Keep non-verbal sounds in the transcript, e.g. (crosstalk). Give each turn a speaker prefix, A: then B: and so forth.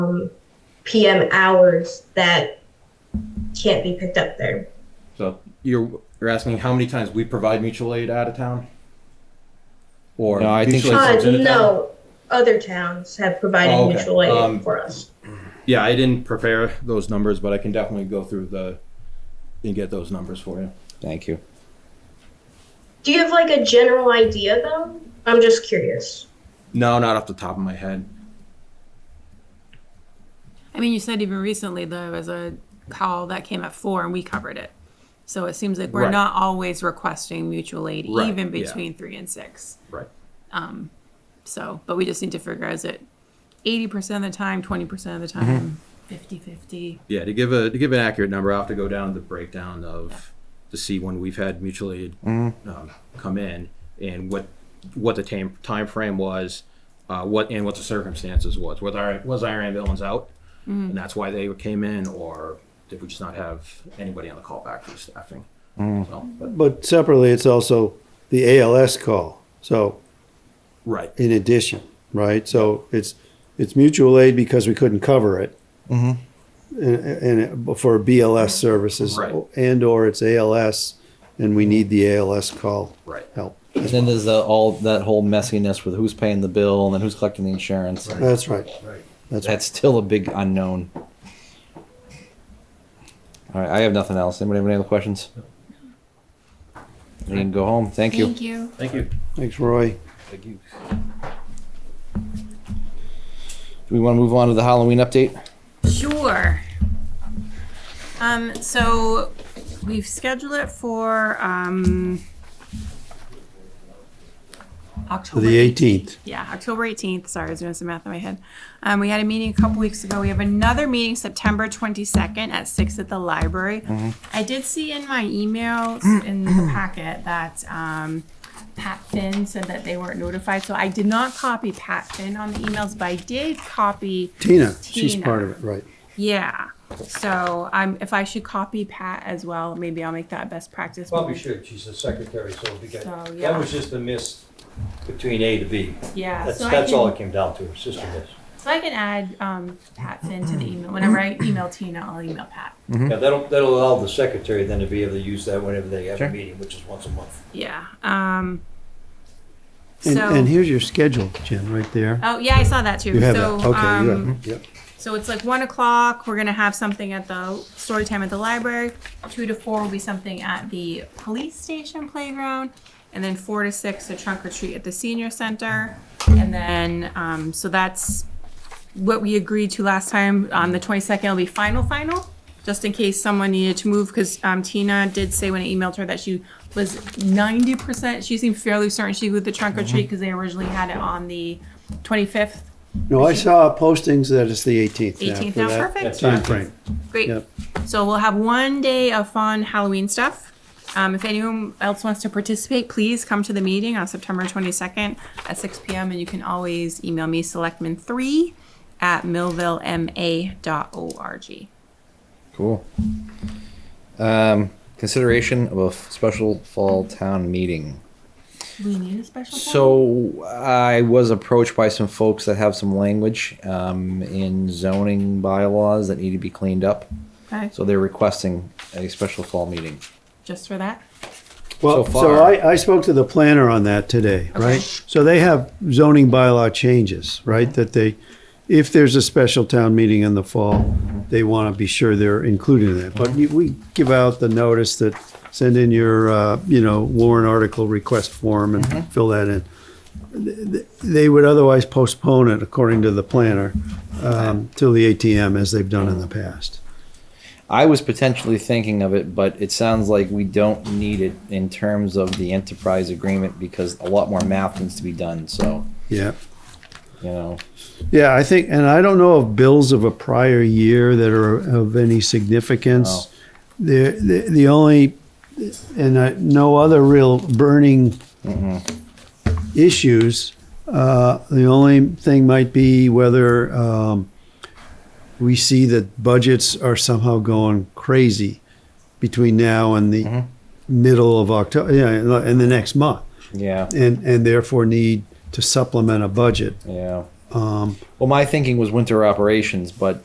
A: um, PM hours that can't be picked up there.
B: So you're you're asking how many times we provide mutual aid out of town? Or
C: No, I think
B: mutual aid
A: Uh,
B: comes into town?
A: no, other towns have provided
B: Oh, okay.
A: mutual aid
B: Um,
A: for us.
B: Yeah, I didn't prepare those numbers, but I can definitely go through the and get those numbers for you.
C: Thank you.
A: Do you have like a general idea though? I'm just curious.
B: No, not off the top of my head.
D: I mean, you said even recently there was a call that came at four and we covered it. So it seems like we're
B: Right.
D: not always requesting mutual aid,
B: Right,
D: even
B: yeah.
D: between three and six.
B: Right.
D: So, but we just need to figure out is it 80% of the time, 20% of the
B: Mm-hmm.
D: time, 50 50?
B: Yeah, to give a to give an accurate number, I'll have to go down the breakdown of to see when we've had mutual aid
C: Mm-hmm.
B: um, come in and what what the time time frame was, uh, what and what the circumstances was. Was our was our ambulance out, and that's why they came in, or did we just not have anybody on the call back for staffing?
C: Mm-hmm.
B: So, but,
E: But separately, it's also the ALS call. So
B: right,
E: in addition, right? So it's it's mutual aid because we couldn't cover it, and, and it- for BLS services,
B: Right.
E: and or it's ALS, and we need the ALS call
B: Right.
E: help.
C: And then there's the, all that whole messiness with who's paying the bill and then who's collecting the insurance.
E: That's right. That's right.
C: That's still a big unknown. All right, I have nothing else. Anybody have any other questions? We can go home. Thank you.
D: you.
B: thank you.
E: Thanks, Roy.
C: Thank you. Do we want to move on to the Halloween update?
D: Sure. Um, so we've scheduled it for um,
E: For
D: October
E: the 18th.
D: Yeah, October 18th. Sorry, I was doing some math in my head. Um, we had a meeting a couple weeks ago. We have another meeting September 22nd at 6 at the library.
E: Mm-hmm.
D: I did see in my emails in
E: (clears throat)
D: the packet that um, Pat Finn said that they weren't notified. So I did not copy Pat Finn on the emails, but I did copy
E: Tina, she's
D: Tina.
E: part of it, right?
D: Yeah. So um, if I should copy Pat as well, maybe I'll make that best practice.
F: Probably should, she's the secretary, so we got,
D: So, yeah.
F: that was just a miss between A to B.
D: Yeah.
F: That's,
D: so I
F: that's
D: can-
F: all it came down to, it's just a miss.
D: So I can add um, Pat Finn to the email. Whenever I email Tina, I'll email Pat.
F: Yeah, that'll, that'll allow the secretary then to be able to use that whenever they have a meeting, which is once a month.
D: Yeah. Um,
E: And,
D: so,
E: and here's your schedule, Jen, right there.
D: oh yeah, I saw that too.
E: You have
D: so,
E: that. Okay,
D: um,
E: Mm-hmm. you have it. Yep.
D: so it's like one o'clock. We're gonna have something at the story time at the library. Two to four will be something at the police station playground, and then four to six a trunk or treat at the senior center, and then um, so that's what we agreed to last time on the 22nd will be final final just in case someone needed to move because um, tina did say when i emailed her that she was 90% she seemed fairly certain she would the trunk or treat because they originally had it on the 25th
E: No, I saw postings that it's the 18th.
D: 18th
E: now,
D: now
E: for that
D: perfect
E: Time frame.
D: Great.
E: Yep.
D: So we'll have one day of fun Halloween stuff. Um, if anyone else wants to participate, please come to the meeting on September 22nd at 6 p.m. And you can always email me selectman3 at millvillema.org.
C: Cool. Um, consideration of a f- special fall town meeting.
D: We need a special
C: So I was approached by some folks that have some language um, in zoning bylaws that need to be cleaned up.
D: okay.
C: So they're requesting a special fall meeting.
D: just for that.
E: Well,
C: so
E: so,
C: far.
E: I, I spoke to the planner on that today, right? So they have zoning bylaw changes, right? That they, if there's a special town meeting in the fall, they want to be sure they're included in that. But you- we give out the notice that send in your, uh, you know, warrant article request form and
C: Mm-hmm.
E: fill that in. Th- They would otherwise postpone it, according to the planner, um, till the ATM as they've done in the
C: Oh.
E: past.
C: I was potentially thinking of it, but it sounds like we don't need it in terms of the enterprise agreement because a lot more math needs to be done. So,
E: Yeah.
C: you know,
E: Yeah, I think, and I don't know of bills of a prior year that are of any significance. The, the the only, and I, no other real burning issues. Uh, the only thing might be whether um, we see that budgets are somehow going crazy between now and the middle of October, yeah, and the- and the next month,
C: yeah,
E: and and therefore need to supplement a budget
C: yeah.
E: Um,
C: Well, my thinking was winter operations, but